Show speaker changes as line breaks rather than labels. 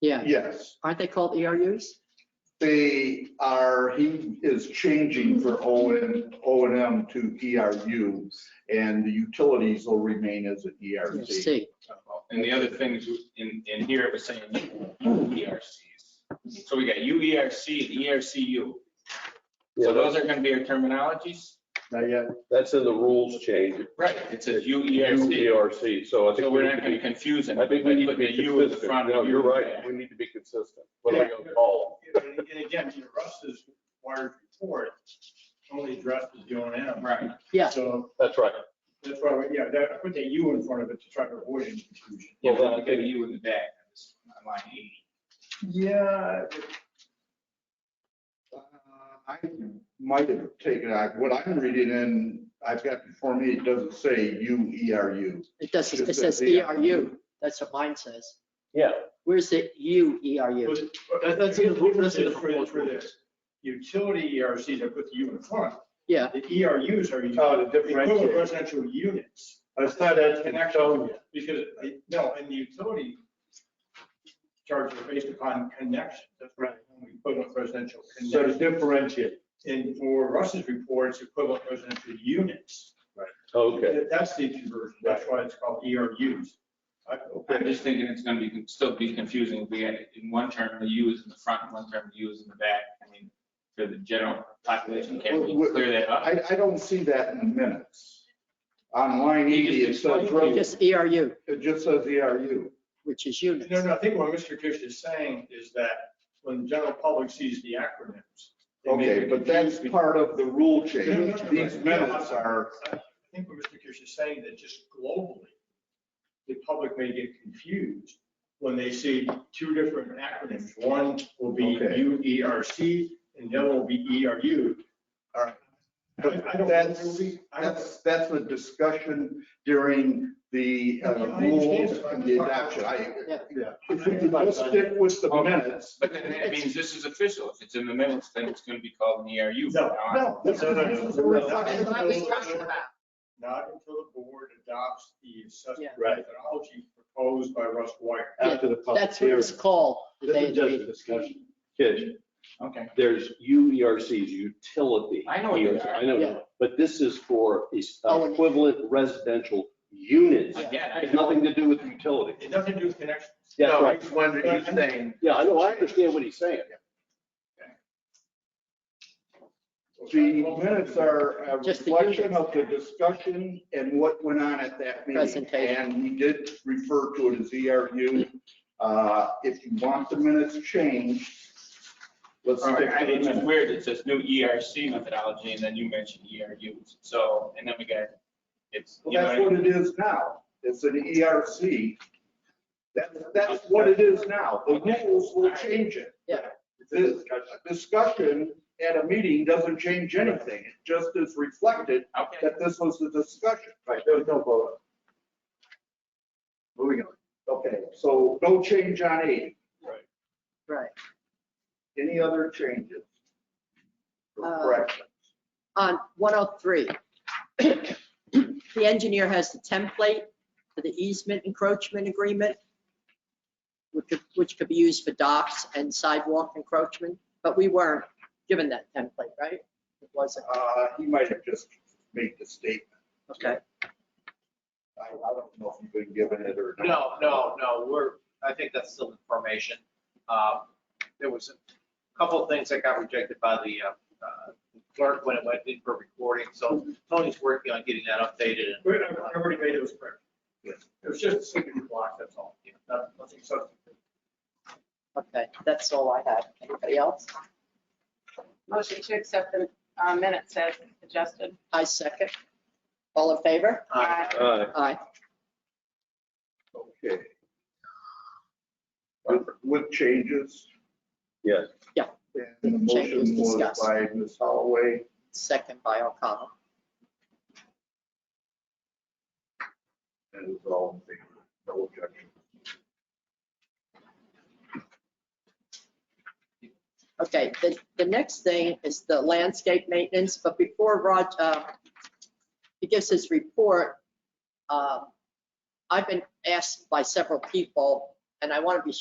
Yeah,
Yes,
aren't they called E ERUs?
they are, he is changing for O and, O and M to ERU, and the utilities will remain as an E ERC.
See,
And the other things in, in here, it was saying ERCs. So we got UERC and E ERCU. So
Yeah,
those are gonna be our terminologies?
Not yet?
that's in the rules change.
Right. It says UERC.
UERC, so I
So
think we
we're
need
not
to be,
gonna confuse them.
E I think we need to
Put the
be
U in the
consistent.
front.
No,
U
you're
in the
right,
back.
we need to be consistent. What are we gonna call
And and again, to Russ's wired report, only addresses the O and M.
Right.
yeah,
So
them? That's right.
that's why, we- yeah, that, I put that U in front of it to try to avoid any confusion.
Yeah,
Well,
but we
then-
got a U in the back. That's on Line 80.
Yeah.
Uh, I might have taken out, what I'm reading in, I've got before me, it doesn't say U E R U.
it does, it
Just
says
says the-
ERU, that's what mine says.
Yeah.
Where's the U ERU?
That,
that's in the- that's in the
For for this, utility ERCs, I put the U in front.
Yeah.
The ERUs are
Oh, the
equivalent
differentiate.
residential units.
That's not
That's an actual, because, I- no, in the utility charges are based upon connection. That's right. We put up residential connection.
differentiate.
And for Russ's report, it's equivalent residential units.
Okay.
That's the conversion, that's why it's called ERUs. I-
I'm just thinking it's gonna be, still be confusing. We had in one term, the U is in the front, one term, the U is in the back. I mean, for the general population, can we clear that up?
I, I don't see that in the minutes. On line
You
80, it
just
says,
explained
res-
Just ERU,
it just says E ERU.
which is units.
No, no, I think what Mr. Kish is saying is that when the general public sees the acronyms. they may
Okay,
be
but that's
confused.
part of the rule
No, no,
change.
no, no,
These
right.
minutes are,
I think what Mr. Kish is saying, that just globally, the public may get confused when they see two different acronyms. One will be
Okay.
UERC and the other will be ERU.
All right.
I I don't.
that's,
I don't-
that's, that's a discussion during the uh,
I understand.
rules and the adoption. I,
Yeah.
if we could just stick with the minutes.
But then that means this is official. If it's in the minutes, then it's gonna be called an E ERU. from
No,
now on.
no, no, no, no, no.
We're not-
Not
What are we talking
until-
about?
not until the board adopts the assessment
Yeah.
Right.
methodology proposed by Russ Wire.
After
the
That's what it's called. the day of the meeting.
discussion. Kish,
Okay.
there's UERCs, utility.
I know what they
ERC,
are.
I know,
Yeah.
but this is for these
Oh, and-
equivalent residential units.
Yeah.
Again, I
It's
know.
nothing to do with utility.
It doesn't do with connections.
That's
No,
right.
it's when he's saying,
Yeah, I know, I understand what he's saying.
the minutes are a
Just the
reflection
units.
of the discussion and what went on at that meeting.
Presentation.
And we did refer to it as ERU. Uh, If you want the minutes changed, let's
All
stick
right, I
to the
think it's
minutes.
weird. It says new ERC methodology and then you mentioned ERUs. So, and then we got, it's, you
Well,
know, what I
that's
mean?
what it is now. It's an E ERC. That's, that's what it is now. The rules will change it.
Yeah.
The discussion at a meeting doesn't change anything. It just is reflected
okay.
that this was the discussion. Right, there was no vote. Moving on. Okay, so no change on eight.
Right.
Any other changes? or
Uh,
corrections?
on 103. The engineer has the template for the easement encroachment agreement, which could, which could be used for docks and sidewalk encroachment, but we weren't given that template, right? It wasn't,
Uh, he might have just made the statement.
okay.
I, I don't know if you've been given it or not.
No, no, no, we're, I think that's still information. Um, There was a couple of things that got rejected by the uh, uh, clerk when it went in for recording, so Tony's working on getting that updated and
We- I already made those corrections. It was just a sleeping block, that's all. you know, not- Nothing substantive.
Okay, that's all I have. Anybody else?
Motion to accept the uh, minutes as adjusted.
I second. All in favor?
Aye.
Uh,
Aye.
Okay. With- With changes.
Yes.
Yeah.
And the motion
Changes
was
discussed.
by Ms. Holloway.
Second by O'Connell.
and it was all in favor, no objection.
Okay, the, the next thing is the landscape maintenance, but before Rod, uh, he gives his report, um, I've been asked by several people, and I want to be